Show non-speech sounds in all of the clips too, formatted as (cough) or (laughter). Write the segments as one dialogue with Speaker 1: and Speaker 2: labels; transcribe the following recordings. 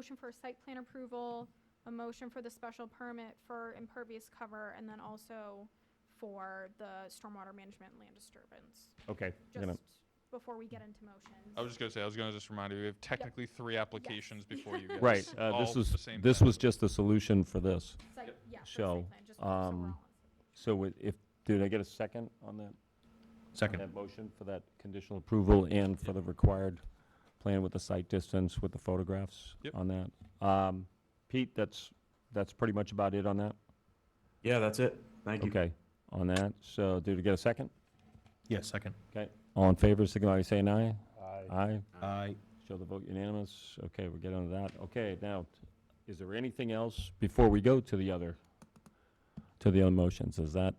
Speaker 1: Motion for site plan approval, a motion for the special permit for impervious cover, and then also for the stormwater management and land disturbance.
Speaker 2: Okay. I'm gonna-
Speaker 1: Just before we get into motions.
Speaker 3: I was just gonna say, I was gonna just remind you, we have technically three applications before you guys.
Speaker 2: Right, uh,
Speaker 3: all
Speaker 2: this
Speaker 3: at the
Speaker 2: was,
Speaker 3: same
Speaker 2: this
Speaker 3: time.
Speaker 2: was just the solution for this.
Speaker 1: Site-
Speaker 3: Yep.
Speaker 1: Yeah, for site
Speaker 2: So,
Speaker 1: plan, just so we're all on
Speaker 2: um,
Speaker 1: the same-
Speaker 2: So i- if, did I get a second on that? on
Speaker 4: Second.
Speaker 2: That motion for that conditional approval and for the required plan with the site distance with the photographs
Speaker 3: Yep.
Speaker 2: on that? Um, Pete, that's, that's pretty much about it on that?
Speaker 4: Yeah, that's it. Thank you.
Speaker 2: Okay, on that, so did we get a second?
Speaker 4: Yeah, second.
Speaker 2: Okay, all in favor, signify by saying aye.
Speaker 5: Aye.
Speaker 2: Aye,
Speaker 4: Aye.
Speaker 2: show the vote unanimous. Okay, we're getting on to that. Okay, now, is there anything else before we go to the other, to the other motions? Is that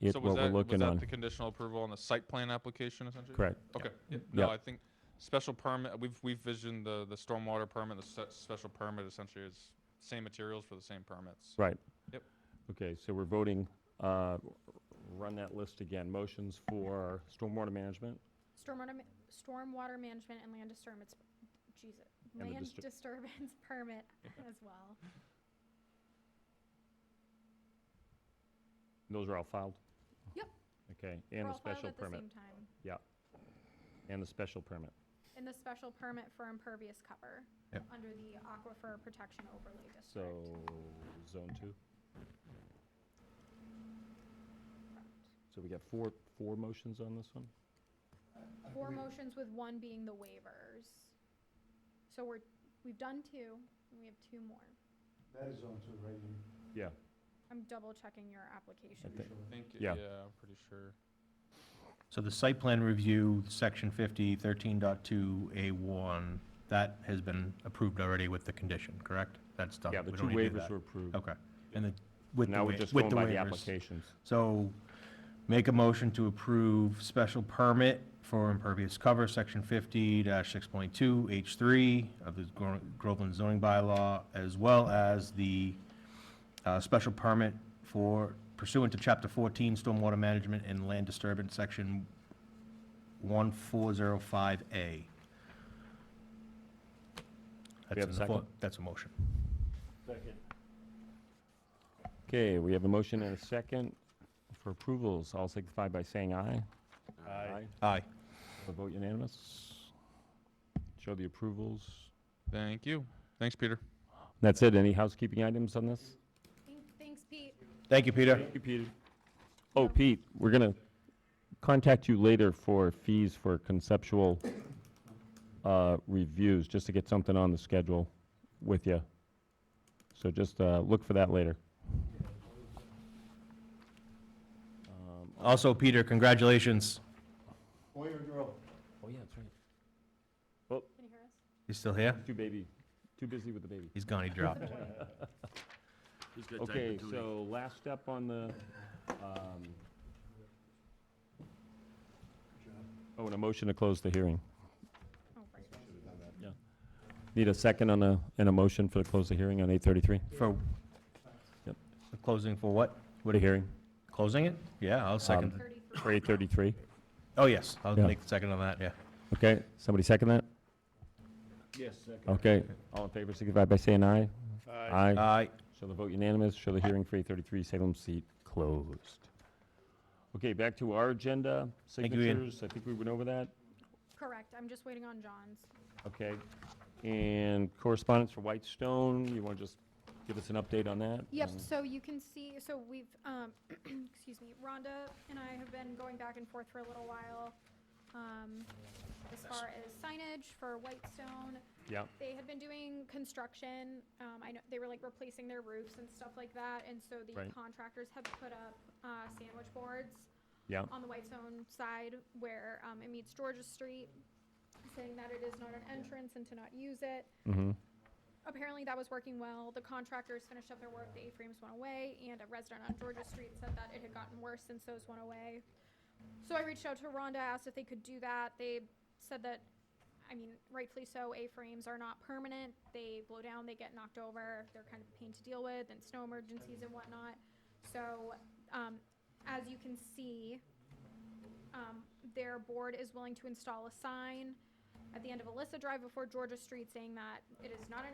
Speaker 2: it,
Speaker 3: So
Speaker 2: what
Speaker 3: was
Speaker 2: we're
Speaker 3: that, was
Speaker 2: looking
Speaker 3: that the
Speaker 2: on?
Speaker 3: conditional approval on the site plan application essentially?
Speaker 2: Correct.
Speaker 3: Okay, yeah, no,
Speaker 2: Yeah.
Speaker 3: I think special permit, we've, we've visioned the, the stormwater permit, the se- special permit essentially is same materials for the same permits.
Speaker 2: Right.
Speaker 3: Yep.
Speaker 2: Okay, so we're voting, uh, run that list again. Motions for stormwater management,
Speaker 1: Stormwater, ma- stormwater management and land disturbance, Jesus,
Speaker 2: the
Speaker 1: land
Speaker 2: distur-
Speaker 1: disturbance (laughs) permit as well.
Speaker 2: those are all filed?
Speaker 1: Yep.
Speaker 2: Okay,
Speaker 1: We're
Speaker 2: and the
Speaker 1: all filed
Speaker 2: special
Speaker 1: at the
Speaker 2: permit,
Speaker 1: same time.
Speaker 2: yeah. And the special permit.
Speaker 1: And the special permit for impervious cover under the aquifer protection overlay district.
Speaker 2: So, zone two? So we got four, four motions on this one?
Speaker 1: Four motions with one being the waivers. So we're, we've done two, and we have two more.
Speaker 5: That is on to Raymond.
Speaker 2: Yeah.
Speaker 1: I'm double checking your application.
Speaker 2: think-
Speaker 3: I think,
Speaker 2: Yeah.
Speaker 3: yeah, I'm pretty sure.
Speaker 6: So the site plan review, section 50, 13.2A1, that has been approved already with the condition, correct? That's done.
Speaker 2: Yeah, the
Speaker 6: We
Speaker 2: two
Speaker 6: don't need to do
Speaker 2: waivers
Speaker 6: that.
Speaker 2: were approved.
Speaker 6: Okay. And the, with the
Speaker 2: Now
Speaker 6: wa-
Speaker 2: we're
Speaker 6: with the
Speaker 2: just going by the
Speaker 6: waivers.
Speaker 2: applications.
Speaker 6: So make a motion to approve special permit for impervious cover, section 50-6.2, H3 of the Gro- Groveland zoning bylaw, as well as the uh, special permit for pursuant to Chapter 14, Stormwater Management and Land Disturbance, Section 1405A. That's
Speaker 2: have
Speaker 6: in
Speaker 2: a
Speaker 6: the fo-
Speaker 2: second?
Speaker 6: That's a motion.
Speaker 2: Okay, we have a motion and a second for approvals. All signify by saying aye. Aye.
Speaker 6: Aye.
Speaker 2: A vote unanimous. Show the approvals.
Speaker 3: Thank you. Thanks, Peter.
Speaker 2: That's it. Any housekeeping items on this?
Speaker 1: Thank- Thanks, Pete.
Speaker 6: Thank you, Peter.
Speaker 2: Pete. Oh, Pete, we're gonna contact you later for fees for conceptual uh, reviews, just to get something on the schedule with you. So just uh, look for that later.
Speaker 6: Also, Peter, congratulations.
Speaker 5: Boy or girl?
Speaker 2: Oh, yeah, that's right.
Speaker 1: Can you hear us?
Speaker 6: You still here?
Speaker 2: Too baby, too busy with the baby.
Speaker 6: He's (laughs) gone, he dropped.
Speaker 2: Okay, so last step on the, um, oh, and a motion to close the hearing.
Speaker 1: Oh, right.
Speaker 2: Need a second on a, and a motion for the close the hearing on 8:33?
Speaker 6: For
Speaker 2: Yep.
Speaker 6: the closing for what?
Speaker 2: What a hearing.
Speaker 6: Closing it? Yeah, I'll second. it.
Speaker 1: Thirty-three.
Speaker 2: For 8:33.
Speaker 6: Oh, yes, I'll
Speaker 2: Yeah.
Speaker 6: make the second on that, yeah.
Speaker 2: Okay, somebody second that?
Speaker 5: Yes, second.
Speaker 2: Okay, all in favor, signify by saying aye. Aye.
Speaker 6: Aye.
Speaker 2: Show the vote unanimous, show the hearing for 8:33 Salem seat closed. Okay, back to our agenda,
Speaker 6: you, Ian.
Speaker 2: signatures. I think we went over that.
Speaker 1: Correct, I'm just waiting on John's.
Speaker 2: Okay. And correspondence for Whitestone, you want to just give us an update on that? Mm-hmm.
Speaker 1: Yep, Mm-hmm. so you can see, so we've, um, (clears throat) excuse me, Rhonda and I have been going back and forth for a little while, um, as far as signage for Whitestone.
Speaker 2: Yeah,
Speaker 1: They had been doing construction, um, I know, they were like replacing their roofs and stuff like that, and so the
Speaker 2: Right.
Speaker 1: contractors have put up, uh, sandwich boards
Speaker 2: yeah,
Speaker 1: on the Whitestone side where, um, it meets Georgia Street, saying that it is not an entrance and to not use it
Speaker 2: mm-hmm,
Speaker 1: apparently that was working well. The contractors finished up their work, the A-frames went away, and a resident on Georgia Street said that it had gotten worse since those went away. So I reached out to Rhonda, asked if they could do that. They said that, I mean, rightfully so, A-frames are not permanent. They blow down, they get knocked over, they're kind of a pain to deal with, and snow emergencies and whatnot. So, um, as you can see, um, their board is willing to install a sign at the end of Alyssa Drive before Georgia Street saying that it is not an